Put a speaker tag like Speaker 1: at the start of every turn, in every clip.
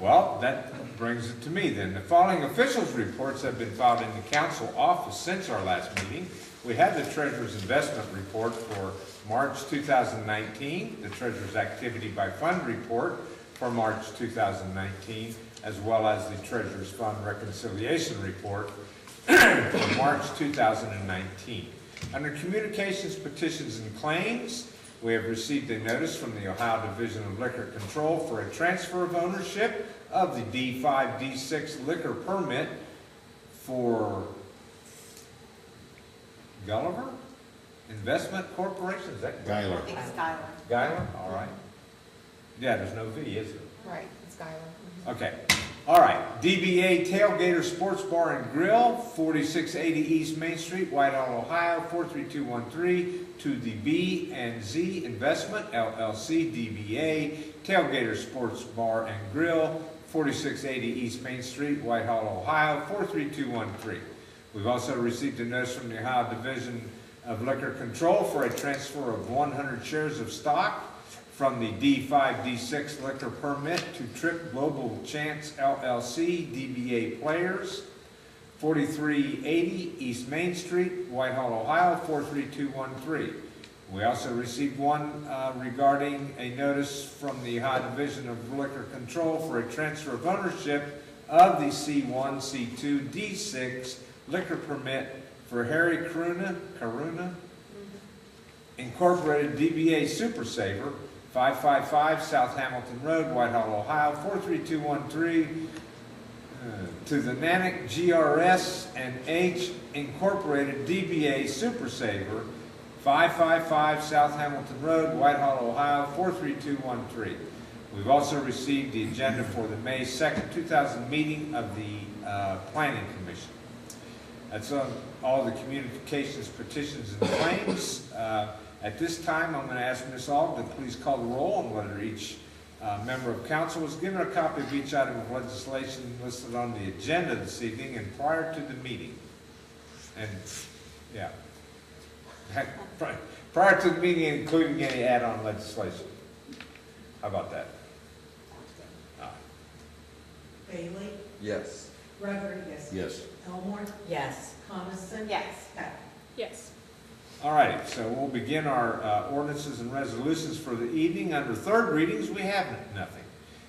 Speaker 1: Well, that brings it to me then. The following officials' reports have been filed in the council office since our last meeting. We have the treasurer's investment report for March 2019, the treasurer's activity by fund report for March 2019, as well as the treasurer's fund reconciliation report for March 2019. Under communications, petitions, and claims, we have received a notice from the Ohio Division of Liquor Control for a transfer of ownership of the D5, D6 liquor permit for Gulliver Investment Corporation, is that
Speaker 2: Guyler.
Speaker 3: I think it's Skylar.
Speaker 1: Guyler? All right. Yeah, there's no V, is there?
Speaker 3: Right, it's Skylar. mm-hmm.
Speaker 1: Okay, all right, DBA Tailgater Sports Bar and Grill, forty-six eighty East Main Street, Whitehall, Ohio, four-three-two-one-three, to the B and Z Investment LLC, DBA Tailgater Sports Bar and Grill, forty-six eighty East Main Street, Whitehall, Ohio, four-three-two-one-three. We've also received a notice from the Ohio Division of Liquor Control for a transfer of one hundred shares of stock from the D5, D6 liquor permit to Trip Global Chance LLC, DBA Players, 4380 East Main Street, Whitehall, Ohio, 43213. We also received one uh, regarding a notice from the Ohio Division of Liquor Control for a transfer of ownership of the C1, C2, D6 liquor permit for Harry Caruna, Caruna, Incorporated DBA Super Saver, 555 South Hamilton Road, Whitehall, Ohio, 43213, uh, to the Nanick GRS and H Incorporated DBA Super Saver, 555 South Hamilton Road, Whitehall, Ohio, 43213. We've also received the agenda for the May 2nd, 2000 meeting of the uh, Planning Commission. That's on all the communications, petitions, and claims. Uh, At this time, I'm going to ask Ms. Aug to please call the roll on whether each uh, member of council was given a copy of each item of legislation listed on the agenda this evening and prior to the meeting. And, yeah. Pri- Prior to the meeting, including any add-on legislation. How about that? Aye.
Speaker 4: Bailey,
Speaker 2: Yes.
Speaker 4: Rodriguez.
Speaker 2: Yes.
Speaker 4: Elmore,
Speaker 5: Yes.
Speaker 4: Coniston.
Speaker 3: Yes.
Speaker 4: Heck.
Speaker 6: Yes.
Speaker 1: All right, so we'll begin our uh, ordinances and resolutions for the evening. Under third readings, we have nothing.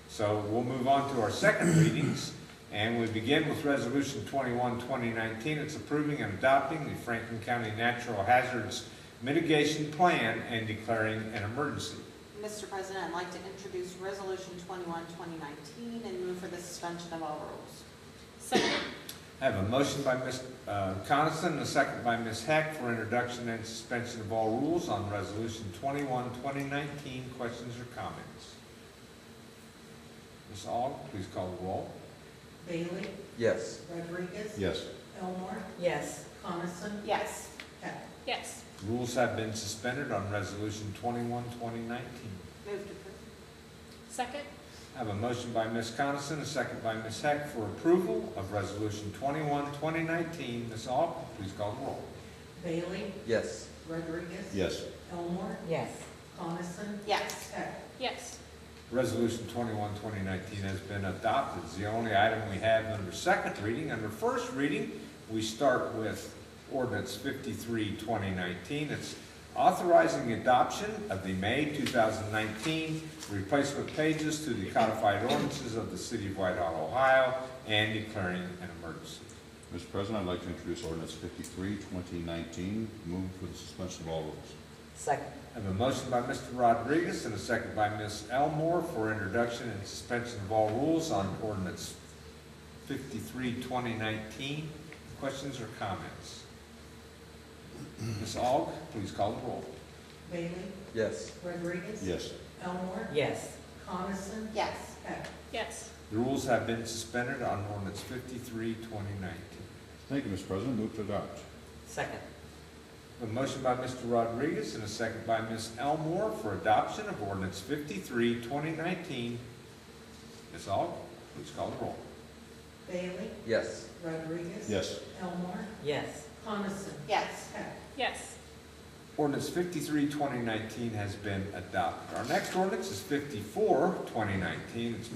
Speaker 1: So we'll move on to our second readings, and we begin with Resolution 21, 2019. It's approving and adopting the Franklin County Natural Hazards Mitigation Plan and declaring an emergency.
Speaker 3: Mr. President, I'd like to introduce Resolution 21, 2019, and move for the suspension of all rules.
Speaker 6: Second.
Speaker 1: I have a motion by Ms. uh, Coniston, and a second by Ms. Heck for introduction and suspension of all rules on Resolution 21, 2019. Questions or comments? Ms. Aug, please call the roll.
Speaker 4: Bailey,
Speaker 2: Yes.
Speaker 4: Rodriguez.
Speaker 2: Yes.
Speaker 4: Elmore,
Speaker 5: Yes.
Speaker 4: Coniston.
Speaker 3: Yes.
Speaker 4: Heck.
Speaker 6: Yes.
Speaker 1: Rules have been suspended on Resolution 21, 2019.
Speaker 3: Move to approve.
Speaker 6: Second.
Speaker 1: I have a motion by Ms. Coniston, a second by Ms. Heck for approval of Resolution 21, 2019. Ms. Aug, please call the roll.
Speaker 4: Bailey,
Speaker 2: Yes.
Speaker 4: Rodriguez.
Speaker 2: Yes.
Speaker 4: Elmore,
Speaker 5: Yes.
Speaker 4: Coniston.
Speaker 3: Yes.
Speaker 4: Heck.
Speaker 6: Yes.
Speaker 1: Resolution 21, 2019 has been adopted. It's the only item we have under second reading. Under first reading, we start with ordinance 53, 2019. It's authorizing adoption of the May 2019 replacement pages to the codified ordinances of the city of Whitehall, Ohio, and declaring an emergency.
Speaker 7: Mr. President, I'd like to introduce ordinance 53, 2019, move for the suspension of all rules.
Speaker 5: Second.
Speaker 1: I have a motion by Mr. Rodriguez and a second by Ms. Elmore for introduction and suspension of all rules on ordinance 53, 2019. Questions or comments? Ms. Aug, please call the roll.
Speaker 4: Bailey,
Speaker 2: Yes.
Speaker 4: Rodriguez.
Speaker 7: Yes.
Speaker 4: Elmore,
Speaker 5: Yes.
Speaker 4: Coniston.
Speaker 3: Yes.
Speaker 4: Heck.
Speaker 6: Yes.
Speaker 1: The rules have been suspended on ordinance 53, 2019.
Speaker 7: Thank you, Mr. President, move to adopt.
Speaker 5: Second.
Speaker 1: A motion by Mr. Rodriguez and a second by Ms. Elmore for adoption of ordinance 53, 2019. Ms. Aug, please call the roll.
Speaker 4: Bailey,
Speaker 2: Yes.
Speaker 4: Rodriguez.
Speaker 7: Yes.
Speaker 4: Elmore,
Speaker 5: Yes.
Speaker 4: Coniston.
Speaker 3: Yes.
Speaker 4: Heck.
Speaker 6: Yes.
Speaker 1: Ordinance 53, 2019 has been adopted. Our next ordinance is 54, 2019. It's